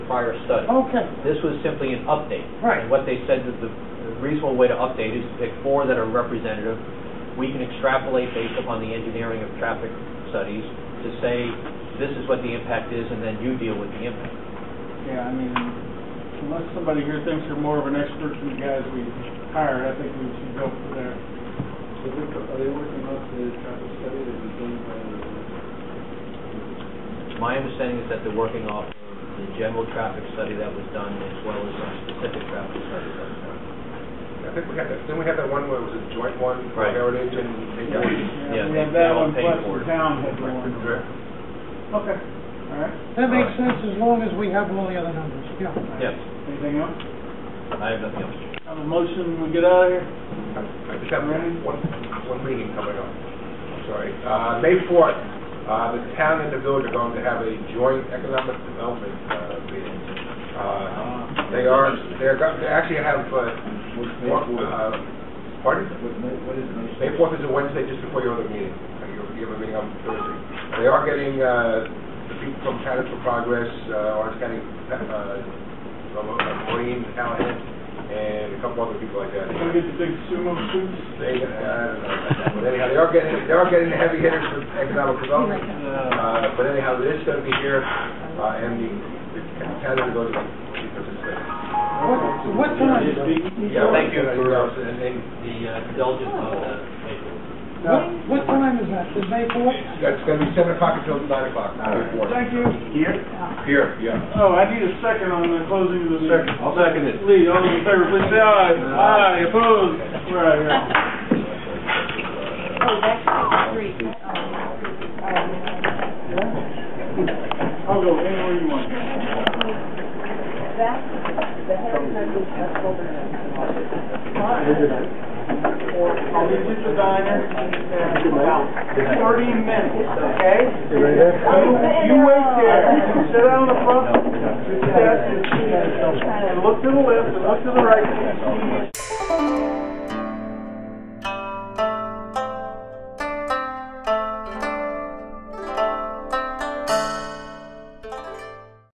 prior study. Okay, This was simply an update. Right. And what they said that the the reasonable way to update is to pick four that are representative. We can extrapolate based upon the engineering of traffic studies to say, this is what the impact is, and then you deal with the impact. Yeah, I mean, unless somebody here thinks you're more of an expert than the guys we hired, I think we should go for there. So they're, are they working off the traffic study that was done by the, My understanding is that they're working off the general traffic study that was done, as well as some specific traffic studies that were done. I think we had that, didn't we have that one where it was a joint one, Right. Heritage and Heritage? Yeah, We they- have they that all one, paid plus for the it. town had one. Okay, all right. that makes sense as long as we have all the other numbers, yeah. Yes, Anything else? I have nothing else. Have a motion, we get out of here? I I just have one, one one meeting coming up, I'm sorry. Uh, May 4th, uh, the town and the village are going to have a joint economic development uh, meeting. Uh, They are, they're, go- they actually have, uh, what's May one- fourth? uh, pardon? What, May- what is May? May 4th is a Wednesday, just before your other meeting. Uh, You you have a meeting on Thursday. They are getting uh, the people from Canada for Progress, uh, Orange County, uh, Maureen Callahan, and a couple other people like that. We're gonna get the big sumo suits? They, uh, but anyhow, they are getting, they are getting the heavy hitters for economic development. Uh, But anyhow, it is going to be here, uh, and the the Canada goes to participate. What, what time, Yeah, thank you for uh, And they- the uh, indulgence on the paper. what, what time is that, is May fourth? That's going to be seven o'clock until nine o'clock. Thank you. Here, yeah. Oh, I need a second on the closing of the meeting. I'll second it. Lee, all those in favor, please say aye. Aye, opposed? We're out of here. Oh, that's three. I'll go anywhere you want. That's the Harry Hudson Festival. I'll be at the diner in about thirty minutes, okay? You wait there, sit down in the front, sit down, and look to the left and look to the right, and see